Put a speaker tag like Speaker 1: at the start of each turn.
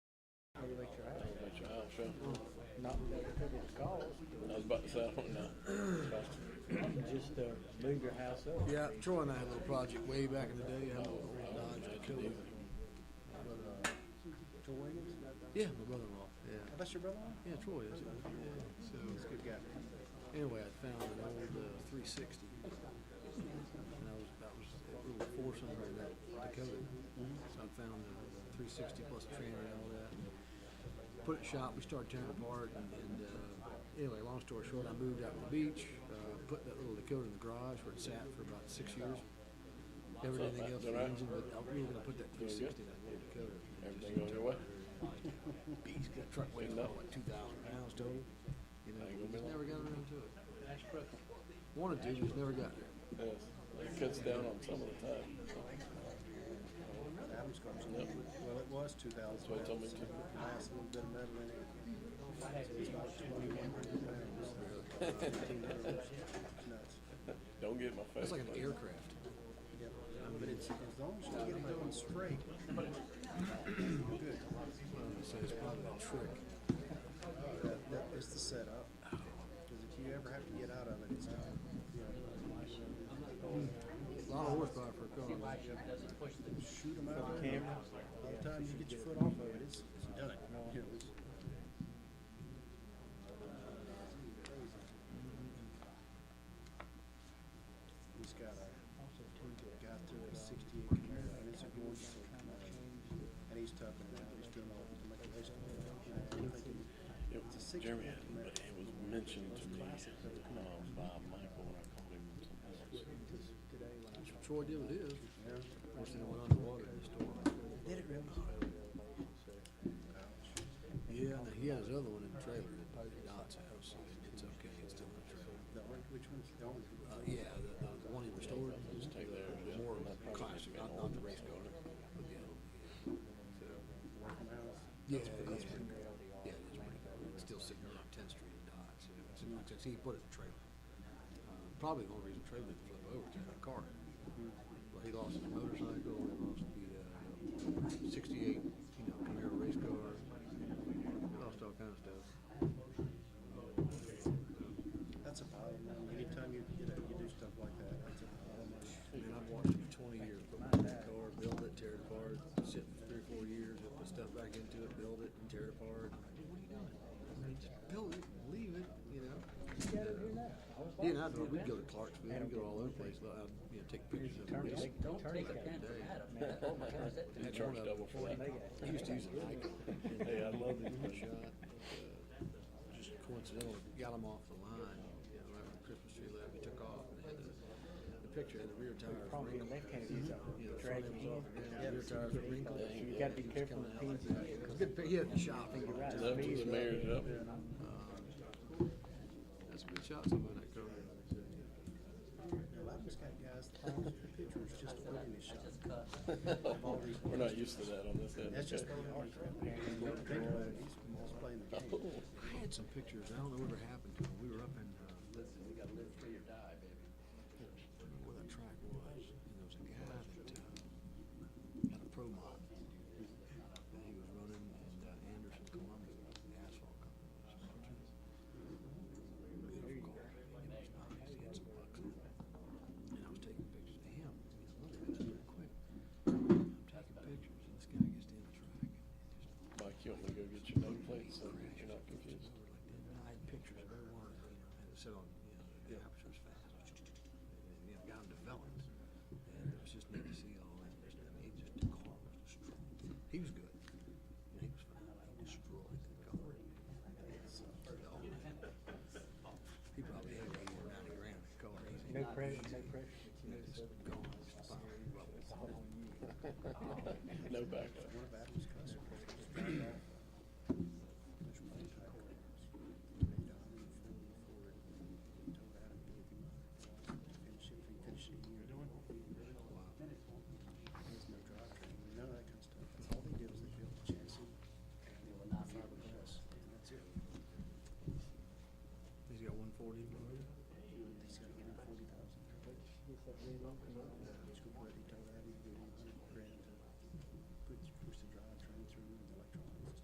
Speaker 1: so.
Speaker 2: Mm-hmm. Not because of the cost,
Speaker 1: I was about to say, I don't know.
Speaker 2: just to move your house up.
Speaker 3: Yeah, Troy and I had a little project way back in the day. I had a little
Speaker 1: Oh,
Speaker 3: red Dodge that killed him. But, uh,
Speaker 2: Troy Williams?
Speaker 3: yeah, my brother-in-law. Yeah,
Speaker 2: Oh, That's your brother-in-law?
Speaker 3: yeah, Troy is. Yeah. So
Speaker 2: Good guy.
Speaker 3: anyway, I found an old uh, 360, and I was that was a little four cylinder in that Dakota. So I found the 360 plus the trailer and all that. Put it in shop. We started tearing it apart, and, and uh, anyway, long story short, I moved out to the beach. Uh, put that little Dakota in the garage where it sat for about six years. Never did anything else with the engine, but I'm really gonna put that 360 in that little Dakota.
Speaker 1: Everything going your way?
Speaker 3: He's got a truck weighs about what, two thousand pounds total? You know, we just never got around to it. Wanted to, just never got there.
Speaker 1: Yes. It cuts down on some of the time.
Speaker 2: Adam's car was a little bit- well, it was two thousand
Speaker 1: what he told me
Speaker 2: pounds.
Speaker 1: to.
Speaker 2: Last little bit of metal in it. It's about twenty-one hundred pounds. Fifteen hundred dollars. Nuts.
Speaker 1: Don't get in my face.
Speaker 3: It's like an
Speaker 1: buddy.
Speaker 3: aircraft.
Speaker 2: Yep. But it's, as long as you get them going straight, you're good.
Speaker 3: So it's probably a trick.
Speaker 2: That, that is the setup. Cause if you ever have to get out of it, it's not, you know,
Speaker 3: A lot of horsepower for a car. man.
Speaker 2: shoot them out. of there. By the time you get your foot off of it, it's, it's done. You know, it's- He's got a, got through a sixty-eight Camaro, and it's a gorgeous little Camaro. And he's toughing it out, he's doing all the manipulation.
Speaker 1: It-
Speaker 2: It's a six
Speaker 1: Jeremy,
Speaker 2: point
Speaker 1: had-
Speaker 2: command.
Speaker 1: it was mentioned to me, um, by Michael when I called him and something else.
Speaker 3: That's what Troy did with his. Of course, then it went underwater in the storm.
Speaker 2: Did it really?
Speaker 3: Yeah, and he had his other one in the trailer at at Dot's house. so It's okay, it's still in the trailer.
Speaker 2: The orange, which one's the orange?
Speaker 3: Uh, yeah, the, the- the one he restored, was
Speaker 1: Take theirs, yeah.
Speaker 3: more
Speaker 1: That probably
Speaker 3: classic,
Speaker 1: should've
Speaker 3: not,
Speaker 1: been
Speaker 3: not
Speaker 1: old.
Speaker 3: the race car. but the other one,
Speaker 2: Working house.
Speaker 3: Yeah, yeah, yeah. Yeah, it is pretty cool. It's still sitting there on Tenth Street in Dodge, so it's, it's, it's, he put it in a trailer. Uh, Probably the only reason the trailer didn't flip over is that car. Well, he lost his motorcycle, he lost the, uh, sixty-eight, you know, Camaro race car, lost all kinds of stuff.
Speaker 2: That's a problem. Anytime you, you know, you do stuff like that, that's a problem.
Speaker 3: Man, I've watched him twenty years, put one in the car, build it, tear it apart, sit for three or four years, he'll put stuff back into it, build it, and tear it apart. I'm like, dude, what are you doing? I mean, just build it, leave it, you know? He and I, drove- we'd go to Clarksville, we'd go all over the place, but I'd, you know, take pictures of
Speaker 4: Don't
Speaker 3: this.
Speaker 4: take- Don't take it down for Adam, man. Oh my God, that
Speaker 1: You
Speaker 3: Had
Speaker 1: charge
Speaker 3: one of-
Speaker 1: double for that.
Speaker 3: He used to use a Nikon.
Speaker 1: Hey, I love these
Speaker 3: One
Speaker 1: things.
Speaker 3: shot, uh, Just coincidental, got him off the line, you know, right when Christmas tree left, he took off, and had the, the picture had the rear tires
Speaker 4: probably
Speaker 3: wrinkled.
Speaker 4: in that kind of use up
Speaker 3: You know, the front
Speaker 4: drag
Speaker 3: end was
Speaker 4: you
Speaker 3: off,
Speaker 4: in.
Speaker 3: the ground, the rear tires were wrinkled.
Speaker 4: So you gotta be careful with pins and shit, 'cause
Speaker 3: Good, pic- he had it in the shop.
Speaker 4: you're right.
Speaker 1: Love to smear it up.
Speaker 3: That's a good shot, somebody that covered.
Speaker 2: Now, Lamar's got guys, that pose for pictures just to put in his shot.
Speaker 1: We're not used to that on this end.
Speaker 2: That's just
Speaker 1: okay?
Speaker 2: really hard. He's he's playing the game.
Speaker 3: I had some pictures, I don't know whatever happened to them, we were up in, uh. Listen, we gotta live free or die, baby. Where that track was, and there was a guy that, uh, had a pro mod, and he was running in uh, Anderson, Columbia, the asphalt company. was sponsoring it. Beautiful car, it was nice, he had some bucks on it, and I was taking pictures of him, I mean, I looked at it real quick. I'm taking pictures, and this guy gets down the track, and just
Speaker 1: Mike, you want me to go get your name plate so you're not confused?
Speaker 3: I had pictures of every one, you know, had it set on, you know, the aperture's fast. And, you know, got them developed. And it was just neat to see all that. Just, I mean, he just, the car was destroyed. He was good. You know, he was fine. but He destroyed the car. It's, uh, the old man. He probably had eighty or ninety grand in the car. He's
Speaker 4: No
Speaker 3: not-
Speaker 4: pressure, no pressure.
Speaker 3: you know, just gone, just fine. Well,
Speaker 1: No back